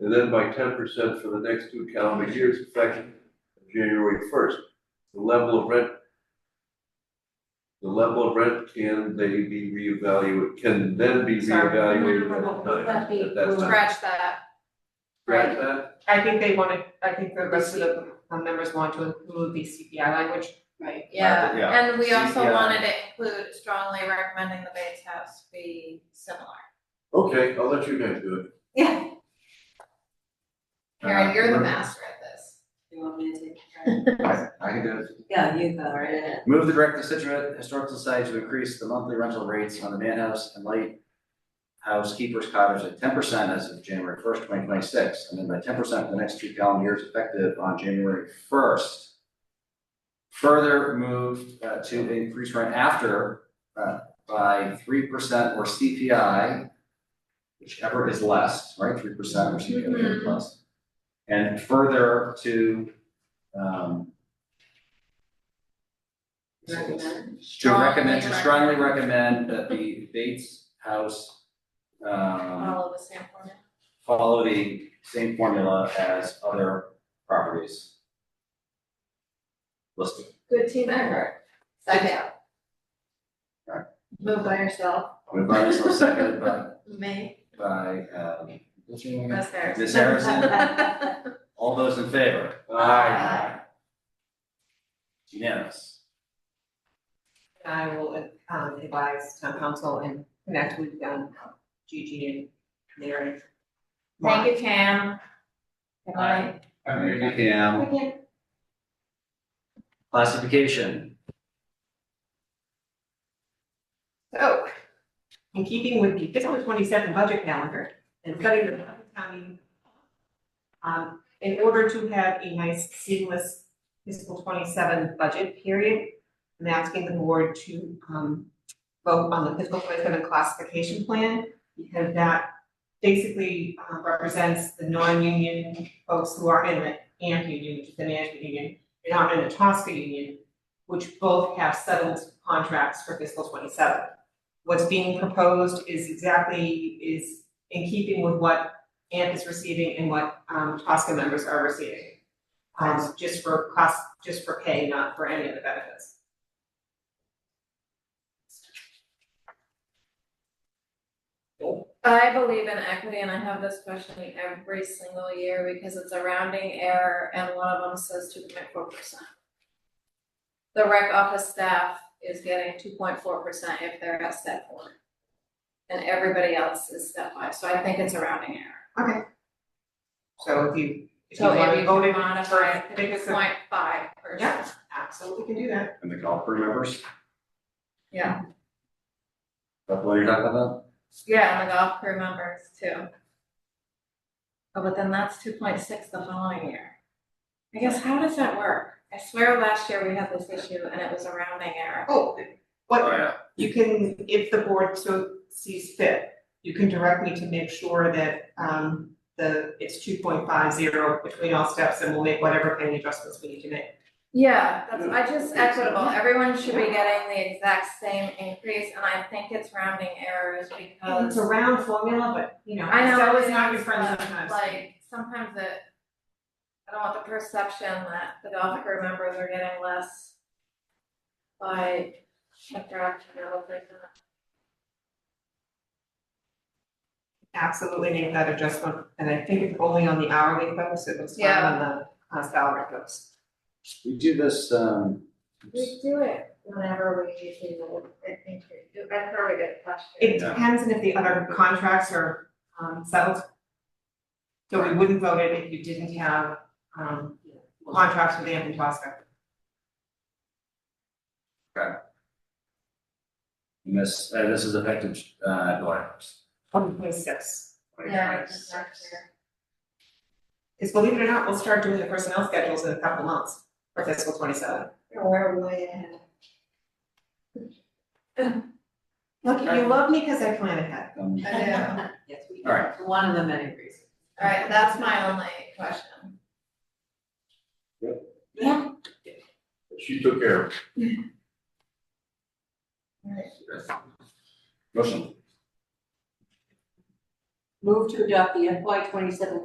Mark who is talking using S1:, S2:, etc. S1: and then by ten percent for the next two calendar years effective January first. The level of rent. The level of rent can they be reevaluated, can then be
S2: Sorry.
S1: reevaluated
S3: No, no,
S1: at
S3: no, no.
S1: that time, at that time.
S3: Scratch that,
S1: Scratch that,
S2: I think they wanted, I think the rest of the uh, members want to include the CPI language.
S4: Right.
S3: yeah,
S5: Market, yeah.
S3: and we also
S5: CPI.
S3: wanted to include strongly recommending the Bates House be similar.
S1: okay, I'll let you guys do it.
S3: Yeah.
S5: Uh,
S3: Karen, you're the master at this.
S4: You want me to take it?
S5: I I can do it.
S4: Yeah, you go right in.
S5: Move the Director of Situate Historical Society to increase the monthly rental rates on the manhouse and light house keeper's cottage at ten percent as of January first, twenty twenty-six, and then by ten percent for the next two calendar years effective on January first. Further moved uh, to increase rent after uh, by three percent or CPI, whichever is less, right, three percent or CPI
S3: Mhm.
S5: plus. And further to um,
S3: Recommend.
S5: to recommend, to
S3: Strongly
S5: strongly recommend that the Bates House um
S3: Follow the same format.
S5: follow the same formula as other properties. Listed.
S3: Good team effort. Second.
S5: Right.
S3: Move by yourself,
S5: Moved by Ms. Lewis, seconded by
S3: me,
S5: by um what's your name again?
S3: Ms. Harrison.
S5: Ms. Harrison, all those in favor?
S3: Aye.
S5: Unanimous.
S2: And I will um, advise town council and connect with um, Gigi and Mary.
S3: Thank you, Cam. Good night.
S5: Alright, Pam, classification,
S2: So, in keeping with the fiscal twenty-seven budget calendar and setting the public town meeting, um, in order to have a nice seamless fiscal twenty-seven budget period, I'm asking the board to, um, vote on the fiscal twenty-seven classification plan, because that basically uh, represents the non-union folks who are in the AMP union, which is the management union, and aren't in the Tosca union, which both have settled contracts for fiscal twenty-seven what's being proposed is exactly, is in keeping with what AMP is receiving and what um Tosca members are receiving. Um, just for cost, just for pay, not for any of the benefits.
S3: I believe in equity and I have this question every single year because it's a rounding error and one of them says two point four percent. The rec office staff is getting two point four percent if they're at step one. And everybody else is step five, so I think it's a rounding error.
S2: So if you, if you
S3: So
S2: want
S3: if
S2: to
S3: you
S2: vote
S3: can
S2: in,
S3: modify
S2: for-
S3: it to
S2: because
S3: two
S2: of-
S3: point five percent.
S2: yeah, absolutely can do that.
S5: and the golf crew members, is
S3: Yeah.
S5: that what you're talking about?
S3: Yeah, and the golf crew members too. Oh, but then that's two point six the following year. I guess, how does that work? I swear last year we had this issue and it was a rounding error.
S2: Oh,
S5: Oh,
S2: what,
S5: yeah.
S2: you can, if the board so sees fit, you can direct me to make sure that um the, it's two point five zero between all steps and we'll make whatever kind of adjustments we need to make.
S3: Yeah, that's, I just equitable, everyone should be getting the exact same increase, and I think it's rounding errors
S2: It's a
S3: because
S2: round formula, but you know,
S3: I know
S2: Excel
S3: it
S2: is not
S3: is,
S2: your friend
S3: but,
S2: sometimes.
S3: like, sometimes it. I don't want the perception that the golf crew members are getting less by interaction or whatever.
S2: Absolutely make that adjustment, and I think it's only on the hourly folks, it was not
S3: Yeah.
S2: on the uh, salary folks.
S5: We do this, um,
S3: We do it whenever we usually do, I think, we do. that's where we get flushed.
S2: It
S5: Yeah.
S2: depends on if the other contracts are um settled. So we wouldn't vote it if you didn't have um contracts with Anthem Tosca.
S5: and this, uh, this is effective, uh, July first.
S2: One point six,
S3: Yeah, it's just not clear.
S2: because believe it or not, we'll start doing the personnel schedules in a couple months for fiscal twenty seven.
S3: Or way ahead.
S2: Look, you love me because I plan ahead.
S3: I
S5: Um,
S3: do.
S4: Yes, we
S5: All right.
S4: do, one of the many reasons.
S3: Alright, that's my only question.
S1: She took care of it.
S5: motion.
S4: Move to adopt the FY twenty-seven